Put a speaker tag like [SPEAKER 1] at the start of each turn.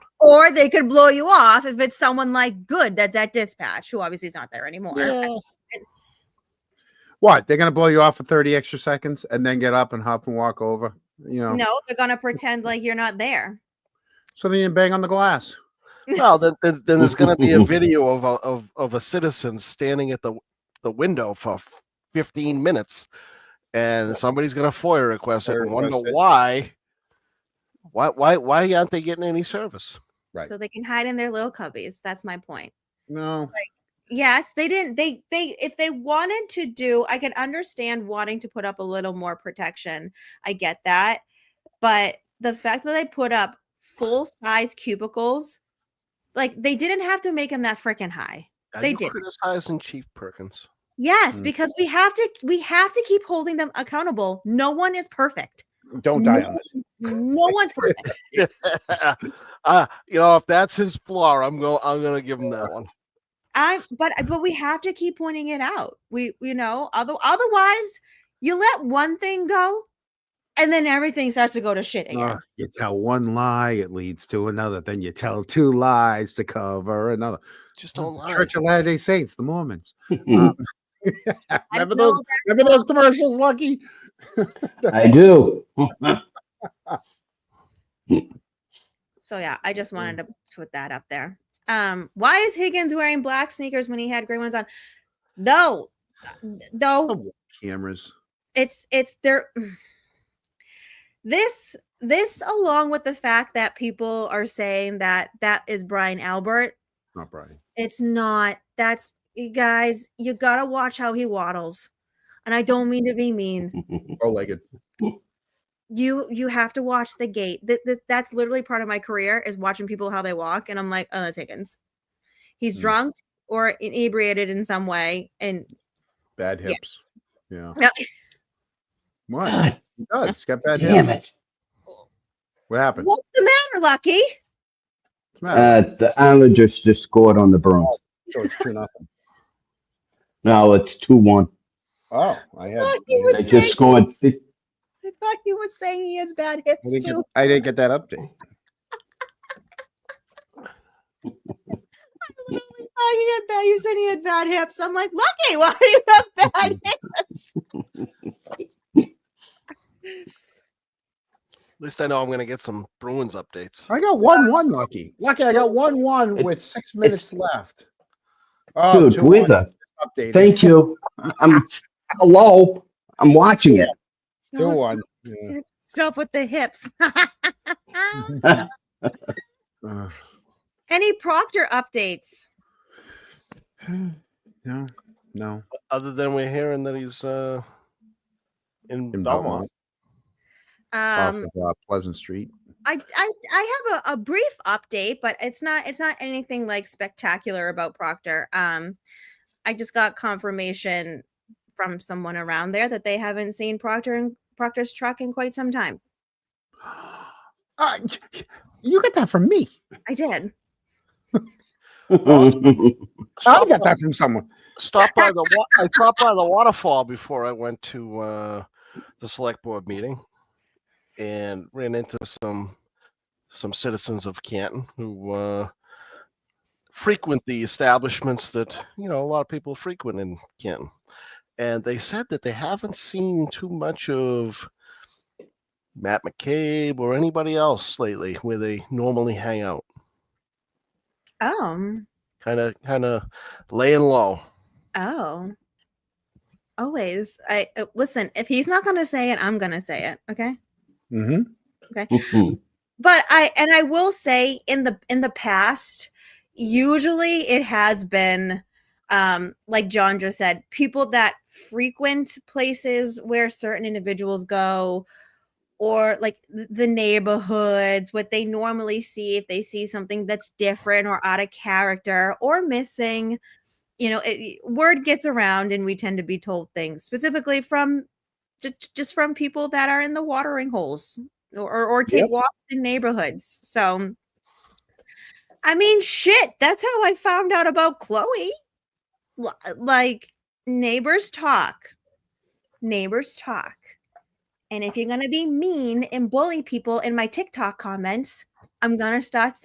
[SPEAKER 1] or they could blow you off if it's someone like Good that's at dispatch, who obviously is not there anymore.
[SPEAKER 2] Yeah.
[SPEAKER 3] What? They're gonna blow you off for thirty extra seconds and then get up and hop and walk over. You know.
[SPEAKER 1] No, they're gonna pretend like you're not there.
[SPEAKER 3] So then you bang on the glass.
[SPEAKER 2] Well, then, then, then there's going to be a video of a, of of a citizen standing at the the window for 15 minutes, and somebody's going to FOIA request it
[SPEAKER 4] They're
[SPEAKER 2] and wonder
[SPEAKER 4] requested.
[SPEAKER 2] why. Why why why aren't they getting any service?
[SPEAKER 4] Right.
[SPEAKER 1] So they can hide in their little cubbies. That's my point.
[SPEAKER 3] No.
[SPEAKER 1] Yes, they didn't. They they if they wanted to do, I can understand wanting to put up a little more protection. I get that, but the fact that they put up full size cubicles, like they didn't have to make them that freaking high.
[SPEAKER 2] Are
[SPEAKER 1] They
[SPEAKER 2] you
[SPEAKER 1] didn't.
[SPEAKER 2] criticizing Chief Perkins?
[SPEAKER 1] Yes,
[SPEAKER 3] Mm.
[SPEAKER 1] because we have to we have to keep holding them accountable. No one is perfect.
[SPEAKER 4] Don't die on this.
[SPEAKER 1] No one's perfect.
[SPEAKER 2] uh, you know, if that's his flaw, I'm going. I'm going to give him that one.
[SPEAKER 1] I but uh, but we have to keep pointing it out. We you know, other, otherwise you let one thing go and then everything starts to go to shit again.
[SPEAKER 3] Uh, you tell one lie, it leads to another. Then you tell two lies to cover another.
[SPEAKER 2] Just don't lie.
[SPEAKER 3] Church of Latter Day Saints, the Mormons. Um,
[SPEAKER 5] Mhm.
[SPEAKER 3] remember
[SPEAKER 1] know
[SPEAKER 3] those? Remember those commercials, Lucky?
[SPEAKER 5] I do.
[SPEAKER 1] So yeah, I
[SPEAKER 3] Mm.
[SPEAKER 1] just wanted to put that up there. Um, why is Higgins wearing black sneakers when he had gray ones on? No,
[SPEAKER 3] Oh.
[SPEAKER 1] though
[SPEAKER 3] Cameras.
[SPEAKER 1] it's it's there mm. this this along with the fact that people are saying that that is brian albert
[SPEAKER 3] Not Brian.
[SPEAKER 1] it's not that's you guys you gotta watch how he waddles and i don't mean to be mean
[SPEAKER 4] Bow legged.
[SPEAKER 1] you you have to watch the gait Th- th- that's literally part of my career is watching people how they walk and i'm like oh that's higgins he's
[SPEAKER 3] Mm.
[SPEAKER 1] drunk or inebriated in some way and
[SPEAKER 3] Bad
[SPEAKER 1] Yeah.
[SPEAKER 3] hips. Yeah.
[SPEAKER 1] No.
[SPEAKER 3] What?
[SPEAKER 5] God
[SPEAKER 3] He does. He's got bad
[SPEAKER 5] damn
[SPEAKER 3] hips.
[SPEAKER 5] it.
[SPEAKER 3] What happened?
[SPEAKER 1] what's the matter lucky
[SPEAKER 3] What's the matter?
[SPEAKER 5] Uh, the Islanders just scored on the Bruins.
[SPEAKER 4] So it's two nothing.
[SPEAKER 5] No, it's 2 1.
[SPEAKER 4] Oh, I had.
[SPEAKER 1] Look, he was
[SPEAKER 5] They
[SPEAKER 1] saying-
[SPEAKER 5] just scored. si-
[SPEAKER 1] i thought he was saying he has bad
[SPEAKER 3] I,
[SPEAKER 1] hips
[SPEAKER 3] didn't get,
[SPEAKER 1] too
[SPEAKER 3] I didn't get that update.
[SPEAKER 1] I literally thought he had bad. You said he had bad hips. I'm like, Lucky, why do you have bad hips?
[SPEAKER 2] At least I know I'm going to get some Bruins updates.
[SPEAKER 3] I got one one, Lucky. Lucky, I got one one with six minutes left. Oh,
[SPEAKER 5] Dude, with
[SPEAKER 3] one
[SPEAKER 5] a
[SPEAKER 3] updated.
[SPEAKER 5] Thank you. I'm hello. I'm watching it.
[SPEAKER 1] No,
[SPEAKER 3] Two one. Yeah.
[SPEAKER 1] stop- Stop with the hips.
[SPEAKER 3] Mm-hmm. Uh,
[SPEAKER 1] Any Proctor updates?
[SPEAKER 3] no, no.
[SPEAKER 2] Other than we're hearing that he's uh, in,
[SPEAKER 3] In
[SPEAKER 2] Belmont.
[SPEAKER 3] Belmont. off
[SPEAKER 1] Um,
[SPEAKER 3] of, uh, Pleasant Street.
[SPEAKER 1] I, I I have a, a brief update, but it's not it's not anything like spectacular about Proctor. Um, I just got confirmation from someone around there that they haven't seen Proctor and Proctor's truck in quite some time.
[SPEAKER 3] Uh, you got that from me.
[SPEAKER 1] I did.
[SPEAKER 3] I
[SPEAKER 2] Stop
[SPEAKER 3] got
[SPEAKER 2] by-
[SPEAKER 3] that from someone.
[SPEAKER 2] Stop by the wa- I stopped by the waterfall before I went to uh, the select board meeting, and ran into some some citizens of Canton who uh, frequent the establishments that you know a lot of people frequent in Canton, and they said that they haven't seen too much of Matt McCabe or anybody else lately where they normally hang out,
[SPEAKER 1] Oh,
[SPEAKER 2] kind of kind of laying low.
[SPEAKER 1] Oh, always. I uh, listen. If he's not gonna say it, I'm gonna say it. Okay.
[SPEAKER 3] Mm-hmm.
[SPEAKER 1] But I and I will say in the in the past, usually it has been, um, like John just said, people that frequent places where certain individuals go, or like th- the neighborhoods, what they normally see if they see something that's different or out of character or missing you know it, word gets around and we tend to be told things specifically from ju- just from people that are in the watering holes or or, or take
[SPEAKER 4] Yep.
[SPEAKER 1] walks in neighborhoods so i mean shit that's how i found out about chloe L- like neighbors talk neighbors talk and if you're going to be mean and bully people in my tiktok comments i'm going to start